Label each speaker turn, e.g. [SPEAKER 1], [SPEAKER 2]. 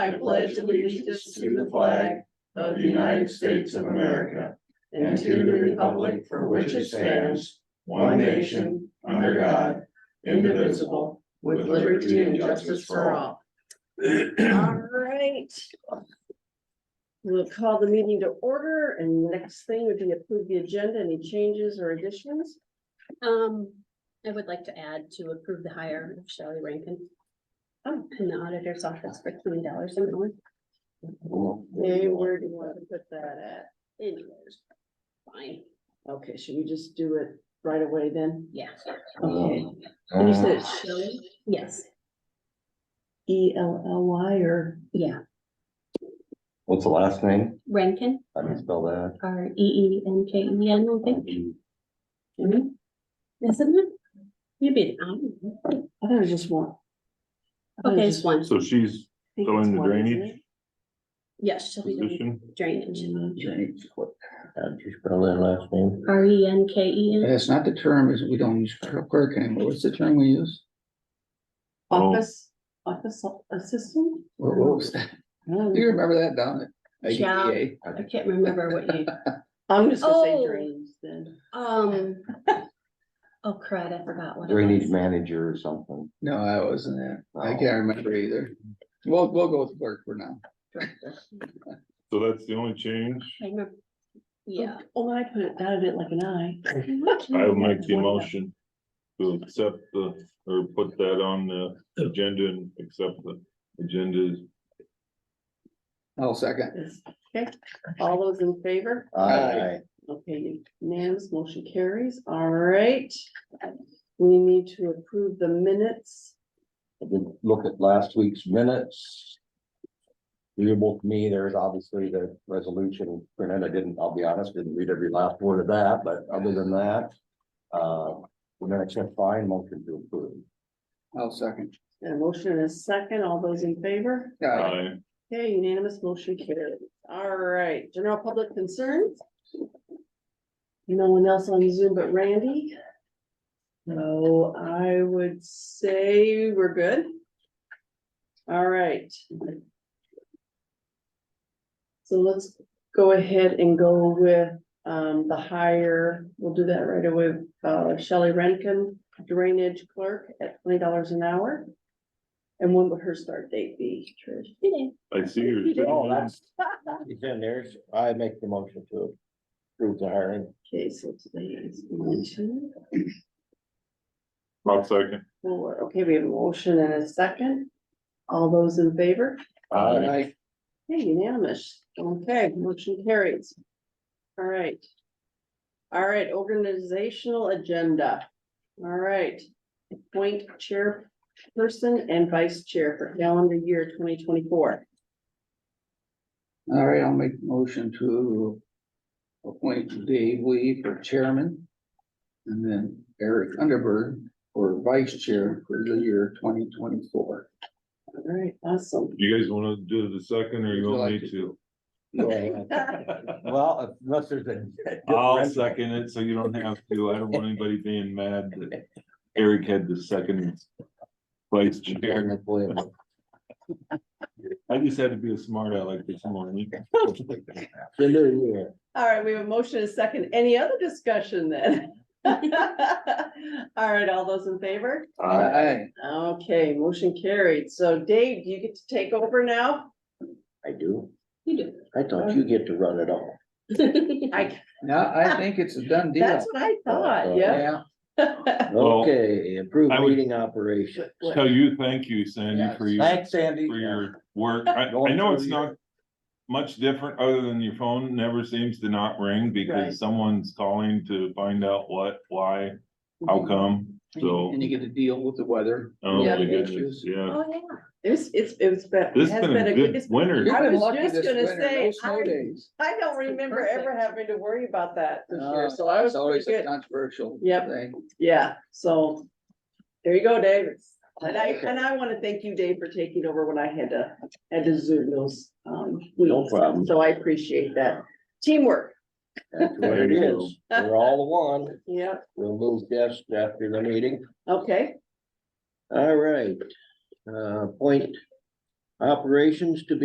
[SPEAKER 1] I pledge allegiance to the flag of the United States of America and to the republic for which it stands, one nation, under God, indivisible, with liberty and justice for all.
[SPEAKER 2] All right. We'll call the meeting to order and the next thing would be approve the agenda. Any changes or additions?
[SPEAKER 3] Um, I would like to add to approve the hire of Shelley Rankin. Oh, in the auditor's office for twenty dollars an hour.
[SPEAKER 2] Hey, where do you want to put that
[SPEAKER 3] Anyways, Fine,
[SPEAKER 2] at? Okay, should we just do it right away then?
[SPEAKER 3] yeah.
[SPEAKER 1] Uh,
[SPEAKER 2] Okay. And You said
[SPEAKER 3] Shelley? Yes,
[SPEAKER 2] E L L Y or
[SPEAKER 3] yeah.
[SPEAKER 1] What's the last name?
[SPEAKER 3] Rankin,
[SPEAKER 1] How do you spell that?
[SPEAKER 3] R E E N K E N, I think, isn't it? Maybe, I don't know.
[SPEAKER 2] I thought it was just one. I thought it
[SPEAKER 3] Okay,
[SPEAKER 2] was
[SPEAKER 3] it's one.
[SPEAKER 4] So she's
[SPEAKER 2] just-
[SPEAKER 4] So in
[SPEAKER 2] I think
[SPEAKER 4] the
[SPEAKER 2] it's one, isn't
[SPEAKER 4] drainage?
[SPEAKER 2] it?
[SPEAKER 3] Yes, Shelley Rankin,
[SPEAKER 4] position,
[SPEAKER 3] drainage.
[SPEAKER 1] How'd you spell that last name?
[SPEAKER 3] R E N K E
[SPEAKER 5] But
[SPEAKER 3] N,
[SPEAKER 5] That's not the term, is we don't use clerk anymore. What's the term we use?
[SPEAKER 4] Oh.
[SPEAKER 2] Office, office assistant?
[SPEAKER 5] What what was that?
[SPEAKER 2] I don't
[SPEAKER 5] Do you
[SPEAKER 2] know.
[SPEAKER 5] remember that, Don? E
[SPEAKER 3] Yeah.
[SPEAKER 5] AKA?
[SPEAKER 3] I can't remember what you,
[SPEAKER 2] I'm just gonna
[SPEAKER 3] Oh.
[SPEAKER 2] say drainage then.
[SPEAKER 3] um. Oh, crud, I forgot what. it
[SPEAKER 1] Drainage
[SPEAKER 3] was.
[SPEAKER 1] manager or something.
[SPEAKER 5] No, I wasn't that. I
[SPEAKER 1] Oh.
[SPEAKER 5] can't remember either. We'll, we'll go with clerk for now.
[SPEAKER 4] so that's the only change.
[SPEAKER 3] I remember. Yeah.
[SPEAKER 2] Oh, I put it down a bit like an I.
[SPEAKER 4] I will make the motion to accept the, or put that on the agenda and accept the agendas.
[SPEAKER 5] I'll second.
[SPEAKER 2] Yes. Okay, all those in favor?
[SPEAKER 5] Aye.
[SPEAKER 2] Okay, unanimous motion carries. All right. We need to approve the minutes.
[SPEAKER 1] I did look at last week's minutes. Readable to me, there's obviously the resolution printed, I didn't, I'll be honest, didn't read every last word of that, but other than that. Uh, we're gonna check fine, motion to approve.
[SPEAKER 5] I'll second.
[SPEAKER 2] A motion and a second. All those in favor?
[SPEAKER 5] Aye.
[SPEAKER 4] I,
[SPEAKER 2] Okay, unanimous motion carries. All right, general public concerns? No one else on Zoom but Randy? So I would say we're good. All right. So let's go ahead and go with um the hire, we'll do that right away, uh Shelley Rankin, drainage clerk at twenty dollars an hour. And when would her start date be, Trish?
[SPEAKER 4] I see her.
[SPEAKER 2] You did.
[SPEAKER 1] Oh,
[SPEAKER 4] sitting
[SPEAKER 1] that's- It's in there, so I make the motion to approve the hiring.
[SPEAKER 2] Okay, so today is one, two,
[SPEAKER 4] there. I'll second.
[SPEAKER 2] four. Okay, we have a motion and a second. All those in favor?
[SPEAKER 5] Aye.
[SPEAKER 2] Hey, unanimous. Okay, motion carries. All right. All right, organizational agenda. All right. Appoint chairperson and vice chair for calendar year twenty twenty-four.
[SPEAKER 5] All right, I'll make motion to appoint Dave Lee for chairman. And then Eric Underberg for vice chair for the year twenty twenty-four.
[SPEAKER 2] All right, awesome.
[SPEAKER 4] You guys wanna do the second or you want me to?
[SPEAKER 1] Uh, Well, unless there's a.
[SPEAKER 4] I'll second it, so you don't have to. I don't want anybody being mad that Eric had the second vice chair. I just had to be a smart aleck this morning.
[SPEAKER 1] The new year.
[SPEAKER 2] All right, we have a motion and a second. Any other discussion then? All right, all those in favor?
[SPEAKER 1] Uh,
[SPEAKER 5] Aye.
[SPEAKER 2] Okay, motion carried. So Dave, you get to take over now?
[SPEAKER 1] I do.
[SPEAKER 3] You
[SPEAKER 1] I thought you get to run it all.
[SPEAKER 3] do.
[SPEAKER 2] I,
[SPEAKER 5] No, I think it's a done
[SPEAKER 2] that's
[SPEAKER 5] deal.
[SPEAKER 2] what I
[SPEAKER 5] Uh,
[SPEAKER 2] thought, yeah.
[SPEAKER 5] Yeah,
[SPEAKER 4] Well,
[SPEAKER 1] Okay, improve
[SPEAKER 4] I would-
[SPEAKER 1] meeting operation.
[SPEAKER 4] Tell you, thank you, Sandy, for your,
[SPEAKER 1] Thanks, Sandy.
[SPEAKER 4] for your work. I, I
[SPEAKER 1] Going
[SPEAKER 4] know it's
[SPEAKER 1] through
[SPEAKER 4] not much different, other than your phone never seems to not ring
[SPEAKER 2] Right.
[SPEAKER 4] because someone's calling to find out what, why, how come, so.
[SPEAKER 5] Mm-hmm. and you get to deal with the weather.
[SPEAKER 4] Oh,
[SPEAKER 2] Yeah.
[SPEAKER 4] my goodness, yeah.
[SPEAKER 3] Oh, yeah.
[SPEAKER 2] It's, it's, it's been. it
[SPEAKER 4] This
[SPEAKER 2] has
[SPEAKER 4] has been a good
[SPEAKER 2] it's- I
[SPEAKER 4] winter.
[SPEAKER 5] You've been
[SPEAKER 2] was
[SPEAKER 5] lucky
[SPEAKER 2] just
[SPEAKER 5] this
[SPEAKER 2] gonna
[SPEAKER 5] winter, no
[SPEAKER 2] say,
[SPEAKER 5] snow
[SPEAKER 2] I-
[SPEAKER 5] days.
[SPEAKER 2] I don't remember ever
[SPEAKER 5] perfect.
[SPEAKER 2] having to worry about that this year,
[SPEAKER 5] No,
[SPEAKER 2] so Uh, I was
[SPEAKER 5] It's always
[SPEAKER 2] pretty
[SPEAKER 5] a
[SPEAKER 2] good.
[SPEAKER 5] controversial
[SPEAKER 2] Yep.
[SPEAKER 5] thing.
[SPEAKER 2] Yeah, so there you go, Dave. And I, and I want to thank you, Dave, for taking over when I had to, had to zoom those, um, wheels.
[SPEAKER 1] problem.
[SPEAKER 2] So I appreciate that. Teamwork,
[SPEAKER 1] That's what it is. We're all one.
[SPEAKER 2] yeah,
[SPEAKER 1] We'll move guests after the meeting.
[SPEAKER 2] okay.
[SPEAKER 1] All right. Uh, point Operations to be